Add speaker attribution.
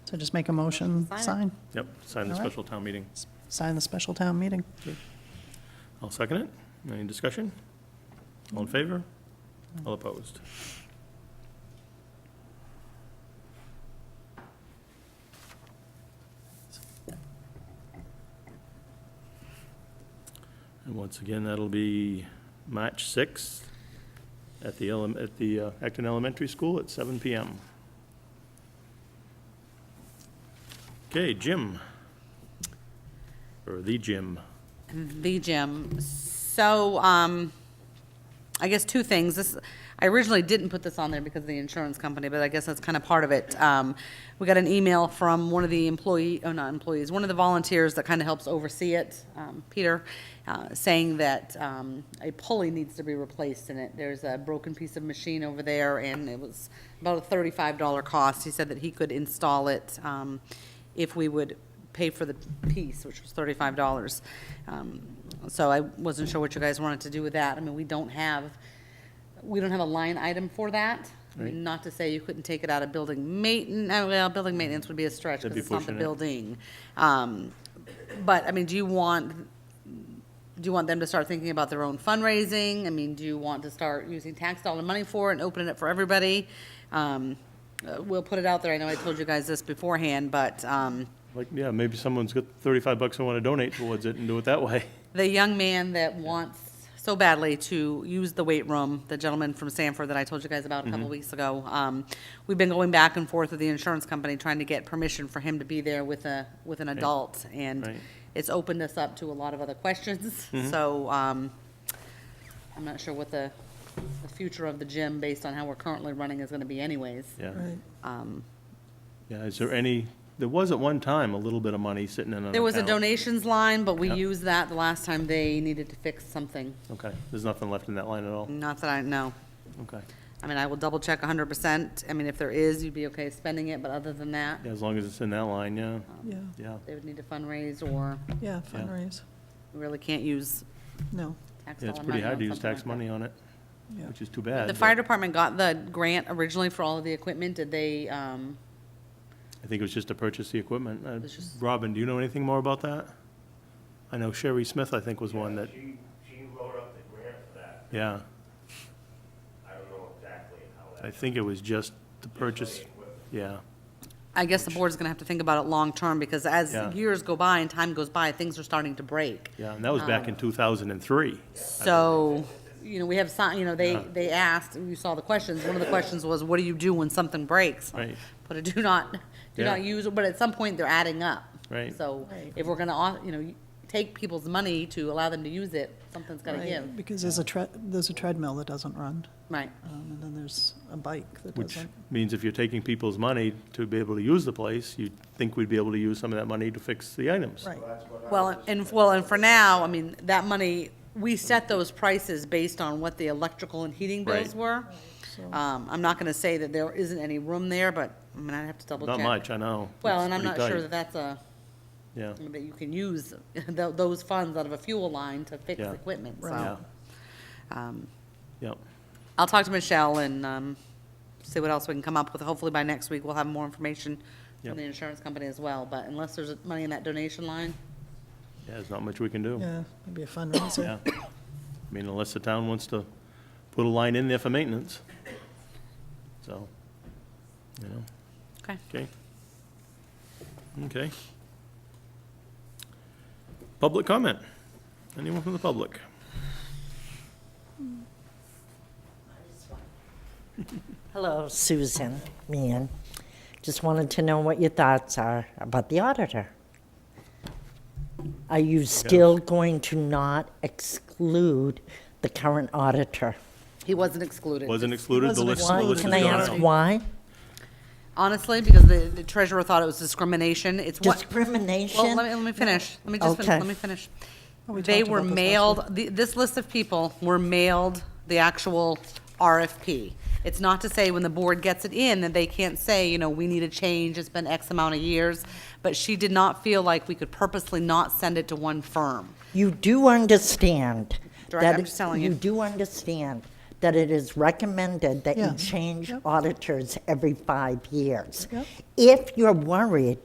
Speaker 1: So just make a motion,
Speaker 2: Sign it.
Speaker 1: sign,
Speaker 3: Yep, sign the
Speaker 1: All right.
Speaker 3: special town meeting.
Speaker 1: sign the special town meeting.
Speaker 3: I'll second it. Any discussion? All in favor? All opposed? And once again, that'll be March 6th at the, elem- at the uh, Acton Elementary School at seven PM. Okay, Jim. Or the Jim.
Speaker 2: the gym. So, um, I guess two things. This, I originally didn't put this on there because of the insurance company, but I guess that's kind of part of it. Um, we got an email from one of the employee, oh, not employees, one of the volunteers that kind of helps oversee it, um, Peter, uh, saying that, um, a pulley needs to be replaced in it. There's a broken piece of machine over there and it was about a thirty-five dollar cost. He said that he could install it, um, if we would pay for the piece, which was thirty-five dollars. Um, So I wasn't sure what you guys wanted to do with that. I mean, we don't have, we don't have a line item for that. I mean, Not to say you couldn't take it out of building maintenance, well, building maintenance would be a stretch,
Speaker 3: That'd
Speaker 2: because
Speaker 3: be
Speaker 2: it's not the
Speaker 3: pushing it.
Speaker 2: building. Um, But, I mean, do you want, do you want them to start thinking about their own fundraising? I mean, do you want to start using tax dollar money for it and opening it for everybody? Um, uh, We'll put it out there. I know I told you guys this beforehand, but, um,
Speaker 3: Like, yeah, maybe someone's got thirty-five bucks and want to donate towards it and do it that way.
Speaker 2: the young man that wants so badly to use the weight room, the gentleman from Sanford that I told you guys about a couple
Speaker 3: Mm-hmm.
Speaker 2: weeks ago. Um, we've been going back and forth with the insurance company trying to get permission for him to be there with a with an adult, and
Speaker 3: Right. Mm-hmm.
Speaker 2: it's opened us up to a lot of other questions. So um, I'm not sure what the the future of the gym, based on how we're currently running, is going to be, anyways.
Speaker 3: Yeah,
Speaker 2: Um,
Speaker 3: yeah, is there any, there was at one time a little bit of money sitting in an account.
Speaker 2: there was a donations line, but we
Speaker 3: Yep.
Speaker 2: used that the last time they needed to fix something.
Speaker 3: Okay, there's nothing left in that line at all,
Speaker 2: Not that I know.
Speaker 3: okay.
Speaker 2: I mean, I will double check hundred percent. I mean, if there is, you'd be okay spending it, but other than that,
Speaker 3: Yeah, as long as it's in that line, yeah,
Speaker 1: Yeah,
Speaker 3: yeah,
Speaker 2: they would need to fundraise or
Speaker 1: yeah, fundraise,
Speaker 2: really can't use
Speaker 1: no,
Speaker 2: tax dollar money.
Speaker 3: yeah, it's pretty hard
Speaker 2: on
Speaker 3: to use
Speaker 2: something
Speaker 3: tax
Speaker 2: like that.
Speaker 3: money on it,
Speaker 1: yeah.
Speaker 3: which is too bad.
Speaker 2: The
Speaker 3: but
Speaker 2: fire department got the grant originally for all of the equipment. Did they, um,
Speaker 3: I think it was just to purchase the equipment. Uh,
Speaker 2: It's just-
Speaker 3: Robin, do you know anything more about that? I know Sherry Smith, I think, was one that,
Speaker 4: She, she wrote up the grant for that.
Speaker 3: yeah,
Speaker 4: I don't know exactly how that.
Speaker 3: I think it was just to purchase, yeah,
Speaker 2: I guess the board's gonna have to think about it long-term because as
Speaker 3: Yeah.
Speaker 2: years go by and time goes by, things are starting to break.
Speaker 3: yeah, and that was
Speaker 2: Um,
Speaker 3: back in two thousand and three.
Speaker 2: So, you know, we have some, you know, they,
Speaker 3: Yeah.
Speaker 2: they asked, and you saw the questions, one of the questions was, what do you do when something breaks?
Speaker 3: Right.
Speaker 2: Put a do not, do
Speaker 3: Yeah.
Speaker 2: not use, but at some point, they're adding up.
Speaker 3: Right.
Speaker 2: So
Speaker 1: Right.
Speaker 2: if we're gonna, au- you know, take people's money to allow them to use it, something's gotta
Speaker 1: Right,
Speaker 2: give,
Speaker 1: Because there's a tre, there's a treadmill that doesn't run,
Speaker 2: right?
Speaker 1: um, and then there's a bike that
Speaker 3: Which
Speaker 1: doesn't.
Speaker 3: means if you're taking people's money to be able to use the place, you'd think we'd be able to use some of that money to fix the items.
Speaker 1: Right,
Speaker 2: Well, and, well, and for now, I mean, that money, we set those prices based on what the electrical and heating bills
Speaker 3: Right.
Speaker 2: were.
Speaker 1: so,
Speaker 2: Um, I'm not gonna say that there isn't any room there, but, I mean, I'd have to double check.
Speaker 3: Not much, I know.
Speaker 2: Well,
Speaker 3: It's
Speaker 2: and I'm not
Speaker 3: pretty
Speaker 2: sure
Speaker 3: tight.
Speaker 2: that that's a.
Speaker 3: Yeah,
Speaker 2: that you can use tho- those funds out of a fuel line to fix
Speaker 3: Yeah.
Speaker 2: equipment,
Speaker 3: yeah,
Speaker 2: so. um,
Speaker 3: yeah.
Speaker 2: I'll talk to Michelle and um, see what else we can come up with. Hopefully by next week, we'll have more information
Speaker 3: Yep.
Speaker 2: from the insurance company as well, but unless there's money in that donation line,
Speaker 3: Yeah, there's not much we can do.
Speaker 1: yeah, maybe a fundraiser,
Speaker 3: Yeah. I mean, unless the town wants to put a line in there for maintenance. So, you know,
Speaker 2: okay.
Speaker 3: okay. Okay. Public comment? Anyone from the public?
Speaker 5: Hello, Susan, Meehan. Just wanted to know what your thoughts are about the auditor. Are you still going to not exclude the current auditor?
Speaker 2: He wasn't excluded.
Speaker 3: Wasn't excluded, the
Speaker 1: Wasn't
Speaker 3: list, the
Speaker 1: excluded.
Speaker 5: Why?
Speaker 3: list is
Speaker 5: Can
Speaker 3: going
Speaker 5: I
Speaker 3: out.
Speaker 5: ask why?
Speaker 2: Honestly, because the the treasurer thought it was discrimination, it's what. Well,
Speaker 5: Discrimination?
Speaker 2: let me, let me finish. Let me just, fin-
Speaker 5: Okay.
Speaker 2: let me finish.
Speaker 1: Oh, we
Speaker 2: They
Speaker 1: talked
Speaker 2: were
Speaker 1: about this last
Speaker 2: mailed, the- this list of people were mailed the actual RFP. It's not to say when the board gets it in that they can't say, you know, we need a change, it's been X amount of years. But she did not feel like we could purposely not send it to one firm.
Speaker 5: You do understand
Speaker 2: Direct-
Speaker 5: that.
Speaker 2: I'm just telling you.
Speaker 5: You do understand that it is recommended that you
Speaker 1: Yeah.
Speaker 5: change
Speaker 1: Yep.
Speaker 5: auditors every five years.
Speaker 1: Yep.
Speaker 5: If you're worried